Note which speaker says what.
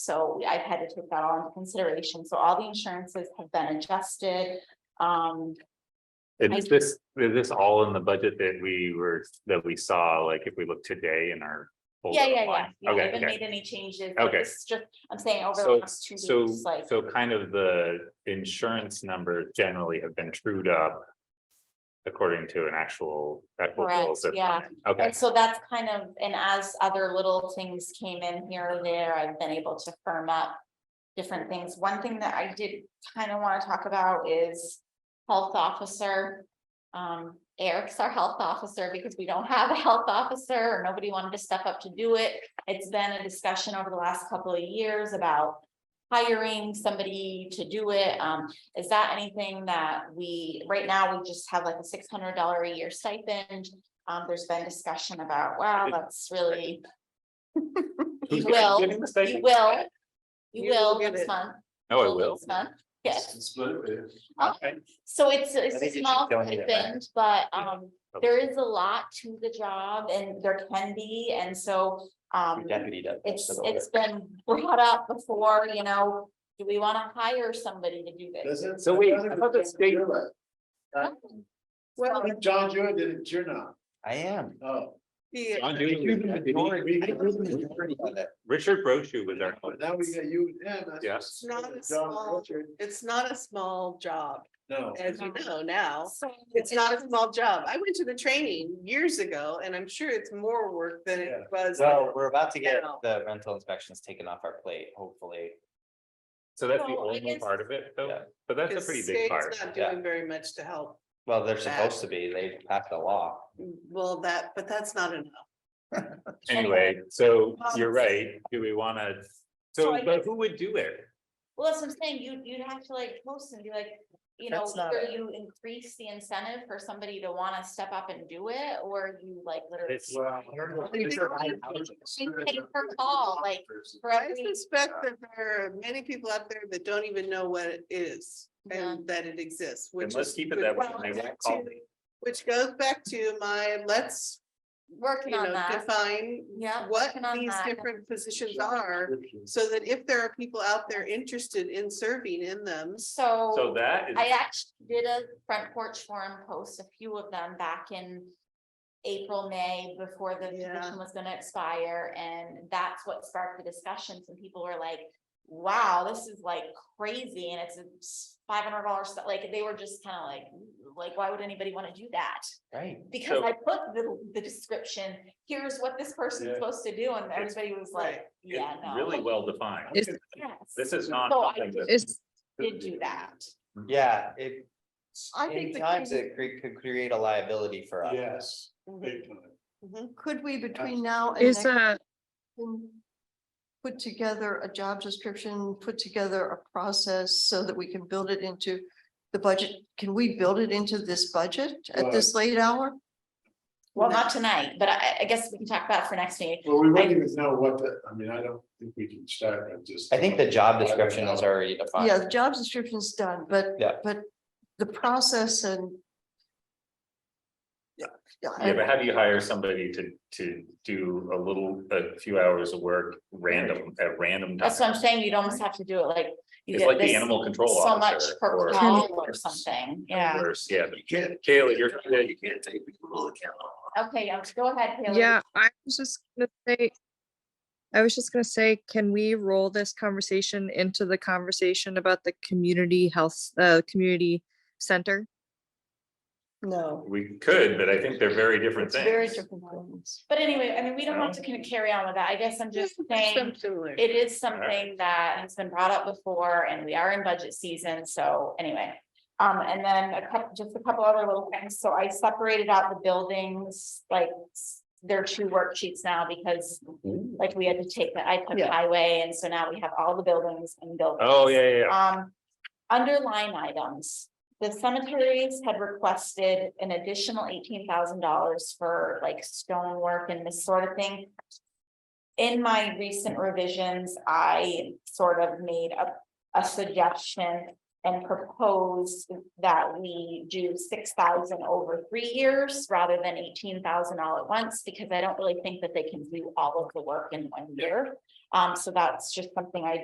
Speaker 1: So we- I've had to take that all into consideration. So all the insurances have been adjusted. Um,
Speaker 2: And
Speaker 1: I-
Speaker 2: is this, is this all in the budget that we were, that we saw, like if we look today in our. folder
Speaker 1: yeah, yeah, yeah.
Speaker 2: online?
Speaker 1: Yeah, I
Speaker 2: Okay,
Speaker 1: haven't
Speaker 2: okay.
Speaker 1: made any changes. but
Speaker 2: Okay.
Speaker 1: this is Just, I'm saying over the
Speaker 2: So-
Speaker 1: last two
Speaker 2: So,
Speaker 1: weeks, like,
Speaker 2: so kind of the insurance numbers generally have been trued up. According to an actual. equitable
Speaker 1: Correct,
Speaker 2: system.
Speaker 1: yeah.
Speaker 2: Okay,
Speaker 1: and so that's kind of, and as other little things came in here or there, I've been able to firm up. Different things. One thing that I did kind of want to talk about is health officer. Um, Eric's our health officer because we don't have a health officer or nobody wanted to step up to do it. It's been a discussion over the last couple of years about hiring somebody to do it. Um, is that anything that we, right now, we just have like a six hundred dollar a year stipend? Um, there's been discussion about, wow, that's really.
Speaker 2: Who's
Speaker 1: You will,
Speaker 2: getting
Speaker 1: you
Speaker 2: the stipend?
Speaker 1: will. You
Speaker 3: You will
Speaker 1: will
Speaker 3: get
Speaker 1: next
Speaker 3: it.
Speaker 1: month.
Speaker 2: Oh, I will.
Speaker 1: Next month, yes.
Speaker 2: Okay.
Speaker 1: So it's,
Speaker 2: I
Speaker 1: it's
Speaker 2: think
Speaker 1: a
Speaker 2: you should
Speaker 1: small
Speaker 2: donate it back.
Speaker 1: stipend, but, um,
Speaker 2: Okay.
Speaker 1: there is a lot to the job and there can be, and so, um.
Speaker 4: Deputy does. most
Speaker 1: It's,
Speaker 4: of the work.
Speaker 1: it's been brought up before, you know, do we want to hire somebody to do this?
Speaker 2: So wait, I thought the state-
Speaker 3: Well,
Speaker 5: John Jewett did it, you're not.
Speaker 4: I am.
Speaker 5: Oh,
Speaker 3: the,
Speaker 2: John Dooley. Richard Brochu was our.
Speaker 5: now we got you, yeah. that's-
Speaker 2: Yes.
Speaker 3: It's not a
Speaker 5: John
Speaker 3: small-
Speaker 5: Richard,
Speaker 3: it's not a small job,
Speaker 5: No.
Speaker 3: as you know now.
Speaker 1: So
Speaker 3: It's not a small job. I went to the training years ago and I'm sure it's more work than it
Speaker 5: Yeah.
Speaker 3: was.
Speaker 4: So we're about to get
Speaker 3: No.
Speaker 4: the rental inspections taken off our plate, hopefully.
Speaker 2: So that's the
Speaker 1: So I
Speaker 2: only
Speaker 1: guess-
Speaker 2: part of it, though,
Speaker 4: Yeah.
Speaker 2: but that's a
Speaker 3: because
Speaker 2: pretty big
Speaker 3: state's
Speaker 2: part.
Speaker 3: Not
Speaker 4: yeah.
Speaker 3: doing very much to help.
Speaker 4: Well, they're
Speaker 3: That-
Speaker 4: supposed to be, they passed the law.
Speaker 3: Well, that, but that's not enough.
Speaker 2: Anyway, so
Speaker 1: Um,
Speaker 2: you're right, do we wanna,
Speaker 1: So
Speaker 2: so,
Speaker 1: I
Speaker 2: but
Speaker 1: guess-
Speaker 2: who would do it?
Speaker 1: Well, that's what I'm saying, you, you'd have to like post and be like, you know,
Speaker 4: That's not
Speaker 1: either you increase the incentive for somebody to wanna step up and do it, or you like literally.
Speaker 2: It's-
Speaker 5: Well, uh, I don't know.
Speaker 1: Pay per call, like, for
Speaker 3: I
Speaker 1: every-
Speaker 3: suspect
Speaker 2: uh
Speaker 3: that there are many people out there that don't even know what it is
Speaker 1: Yeah.
Speaker 3: and that it exists,
Speaker 2: Then
Speaker 3: which
Speaker 2: let's
Speaker 3: is.
Speaker 2: keep it that way.
Speaker 3: which
Speaker 2: and
Speaker 3: goes
Speaker 2: they won't
Speaker 3: back
Speaker 2: call
Speaker 3: to-
Speaker 2: me.
Speaker 3: Which goes back to my, let's, you
Speaker 1: Working on
Speaker 3: know,
Speaker 1: that,
Speaker 3: define
Speaker 1: yeah.
Speaker 3: what
Speaker 1: working on
Speaker 3: these
Speaker 1: that.
Speaker 3: different positions are. So that if there are people out there interested in serving in them,
Speaker 2: So
Speaker 1: So
Speaker 2: that is,
Speaker 1: I actually did a front porch forum post, a few of them back in April, May, before the
Speaker 3: Yeah.
Speaker 1: position was gonna expire, and that's what sparked the discussions, and people were like, wow, this is like crazy, and it's a five hundred dollars, like, they were just kind of like, like, why would anybody wanna do that?
Speaker 4: Right.
Speaker 1: Because
Speaker 2: So-
Speaker 1: I put the, the description, here's what this person's
Speaker 5: Yeah.
Speaker 1: supposed to do, and everybody was like, yeah,
Speaker 2: it's
Speaker 1: no.
Speaker 2: really well defined.
Speaker 6: Is-
Speaker 1: Yes.
Speaker 2: This is not.
Speaker 1: So I
Speaker 2: something that-
Speaker 6: Is,
Speaker 1: Did do that,
Speaker 4: Yeah, it.
Speaker 3: I
Speaker 4: In
Speaker 3: think the
Speaker 4: times
Speaker 3: key-
Speaker 4: it cre- could create a liability for us.
Speaker 5: Yes, big time.
Speaker 7: Could we between now and
Speaker 6: is
Speaker 7: next
Speaker 6: a,
Speaker 7: time put together a job description, put together a process so that we can build it into the budget? Can we build it into this budget at this late hour?
Speaker 1: well, not tonight, but I, I guess we can talk about it for next meeting,
Speaker 5: Well, we wouldn't even know what the, I mean, I don't think we can start and just.
Speaker 4: I think the job description is already defined.
Speaker 7: Yeah, the job description is done, but,
Speaker 4: Yeah.
Speaker 7: but the process and yeah,
Speaker 2: Yeah,
Speaker 7: yeah,
Speaker 2: but how do you hire somebody to, to do a little, a few hours of work random, at random
Speaker 1: that's what I'm
Speaker 2: times?
Speaker 1: saying, you'd almost have to do it like. you
Speaker 2: It's
Speaker 1: get
Speaker 2: like the
Speaker 1: this
Speaker 2: animal control
Speaker 1: So much
Speaker 2: officer.
Speaker 1: per
Speaker 2: or-
Speaker 1: call or something, yeah,
Speaker 2: or- Yeah, but
Speaker 5: You can't,
Speaker 2: Kayla, you're,
Speaker 5: you can't take people to account.
Speaker 1: okay, I'll just go ahead, Taylor.
Speaker 6: yeah, I was just gonna say, I was just gonna say, can we roll this conversation into the conversation about the community health, uh, community center?
Speaker 7: no.
Speaker 2: we could, but I think they're very different
Speaker 7: It's very
Speaker 2: things.
Speaker 7: different things.
Speaker 1: But anyway, I mean, we don't have to kinda carry on with that, I guess I'm just saying,
Speaker 3: Similar.
Speaker 1: it is something that has been brought up before, and we are in budget season, so anyway. Um, and then a couple, just a couple other little things, so I separated out the buildings, like, s- they're two worksheets now, because like, we had to take the, I took
Speaker 7: Yeah.
Speaker 1: highway, and so now we have all the buildings and buildings.
Speaker 2: Oh, yeah, yeah, yeah.
Speaker 1: Um, under line items, the cemeteries had requested an additional eighteen thousand dollars for like stonework and this sort of thing. In my recent revisions, I sort of made a, a suggestion and proposed that we do six thousand over three years rather than eighteen thousand all at once, because I don't really think that they can do all of the work in one year. Um, so that's just something I